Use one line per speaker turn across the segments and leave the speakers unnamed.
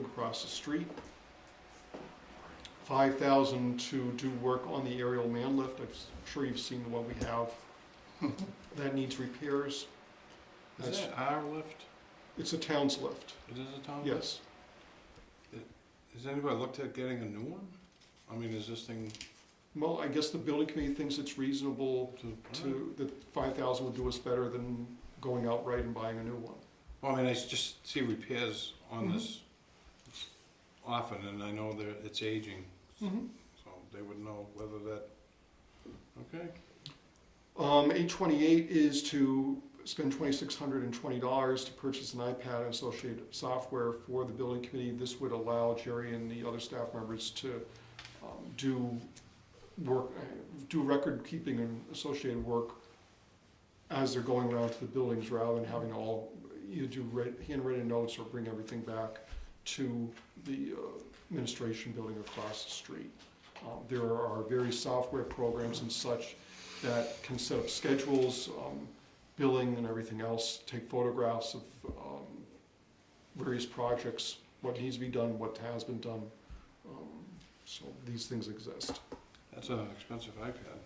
across the street. Five thousand to do work on the aerial man lift, I'm sure you've seen what we have. That needs repairs.
Is
That's-
that our lift?
It's a town's lift,
It is a town lift?
yes.
Has anybody looked at getting a new one? I mean, is this thing
Well, I guess the building committee thinks it's reasonable
to,
to, that five thousand would do us better than going outright and buying a new one.
well, I mean, I s- just see repairs on
Mhm.
this often, and I know that it's aging, so they would know whether that, okay?
Um, eight twenty-eight is to spend twenty-six hundred and twenty dollars to purchase an iPad and associated software for the building committee. This would allow Jerry and the other staff members to, um, do work, uh, do record keeping and associated work as they're going around to the buildings rather than having all, you do write, handwritten notes or bring everything back to the uh, administration building across the street. Um, there are various software programs and such that can set up schedules, um, billing and everything else, take photographs of, um, various projects, what needs to be done, what has been done. Um, So these things exist.
That's an expensive iPad.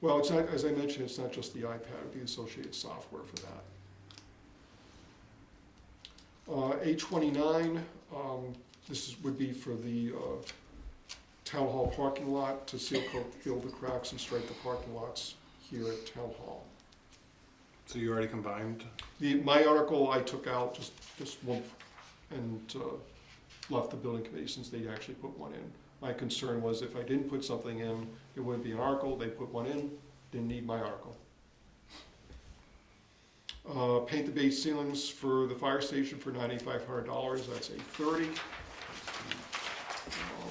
Well, it's not, as I mentioned, it's not just the iPad, it'd be associated software for that. Uh, eight twenty-nine, um, this is, would be for the, uh, town hall parking lot to seal coat, fill the cracks and straighten the parking lots here at town hall.
So you already combined?
The, my article I took out, just, just one, and, uh, left the building committee since they actually put one in. My concern was if I didn't put something in, it wouldn't be an article, they put one in, didn't need my article. Uh, paint the base ceilings for the fire station for ninety-five hundred dollars, that's eight thirty. Um,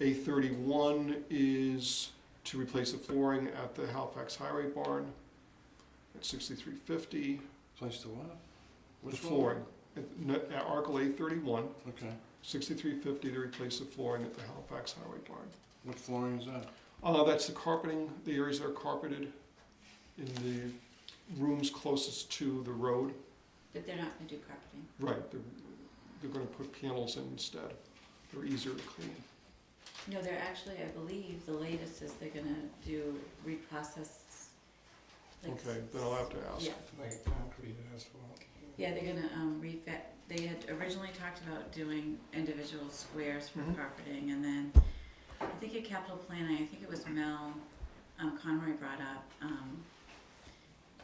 Eight thirty-one is to replace the flooring at the Halifax Highway Barn at sixty-three fifty.
Place to what?
The
Which one?
flooring, at, n- at Article A thirty-one,
Okay.
sixty-three fifty to replace the flooring at the Halifax Highway Barn.
What flooring is that?
Uh, that's the carpeting, the areas that are carpeted in the rooms closest to the road.
But they're not gonna do carpeting.
Right, they're, they're gonna put panels in instead. They're easier to clean.
No, they're actually, I believe, the latest is they're gonna do reprocess. like
Okay,
s-
then I'll have to ask.
Yeah,
Like a concrete asphalt.
yeah, they're gonna, um, refit, they had originally talked about doing individual squares for
Mhm.
carpeting, and then I think at capital planning, I think it was Mel, um, Conroy brought up, um,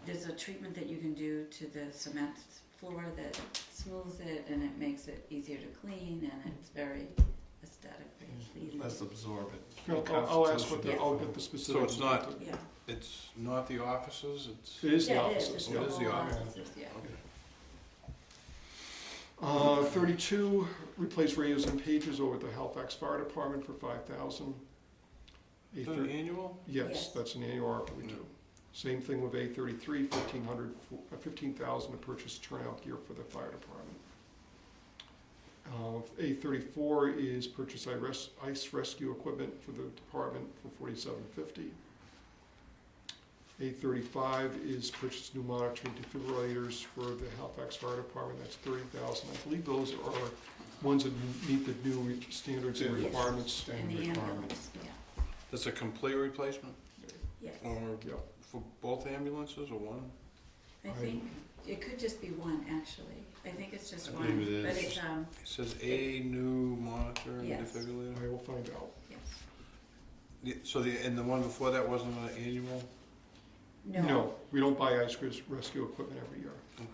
there's a treatment that you can do to the cement floor that smooths it and it makes it easier to clean, and it's very aesthetically pleasing.
Let's absorb it.
I'll, I'll ask what the,
Constitution.
I'll get the specific.
it's not-
Yeah.
It's not the offices, it's,
It is the
Yeah,
offices,
It's
yeah.
Oh, It is the
whole
office.
offices, yeah.
okay.
Uh, thirty-two, replace radios and pages over at the Halifax Fire Department for five thousand.
Is that annual?
Yes,
Yes.
that's an annual article we do. Same thing with A thirty-three, fifteen hundred, uh, fifteen thousand to purchase turnout gear for the fire department. A thirty-four is purchase i- res- ice rescue equipment for the department for forty-seven fifty. A thirty-five is purchase new monitoring defibrillators for the Halifax Fire Department, that's thirty thousand. I believe those are ones that meet the new re- standards and
Yes.
requirements.
And the ambulance, yeah,
That's a complete replacement,
yes.
or
Yeah.
for both ambulances, or one?
I think it could just be one, actually. I think it's just
I
one.
believe it
But
is.
it's, um,
It says a new monitor and
Yes.
defibrillator.
I will find out.
yes.
Yeah, So the, and the one before that wasn't an annual?
No,
we don't buy ice res- rescue equipment every year. Um,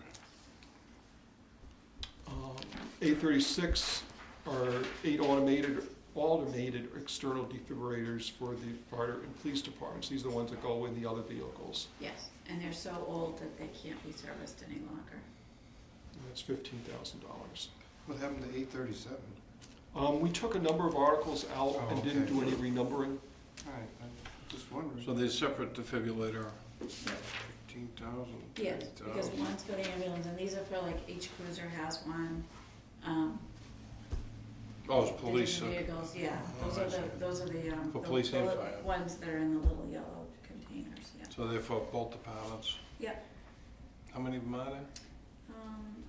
Okay.
Eight thirty-six are eight automated, automated external defibrillators for the fire and police departments. These are the ones that go in the other vehicles.
yes. And they're so old that they can't be serviced any longer.
And That's fifteen thousand dollars.
What happened to eight thirty-seven?
Um, we took a number of articles out
Oh,
and didn't
okay.
do any renumbering.
All right, I'm just wondering.
So there's separate defibrillator, fifteen thousand.
Yes, because
Oh.
one's for the ambulance, and these are for like each cruiser has one. Um,
Oh, it's
the
police, okay.
vehicles, yeah.
Oh,
Those
I
are the,
see.
those are the, um,
For
the
police and
bullet
fire.
Ones that are in the little yellow containers, yeah.
so they're for both departments?
Yeah.
How many of them are there?
Um,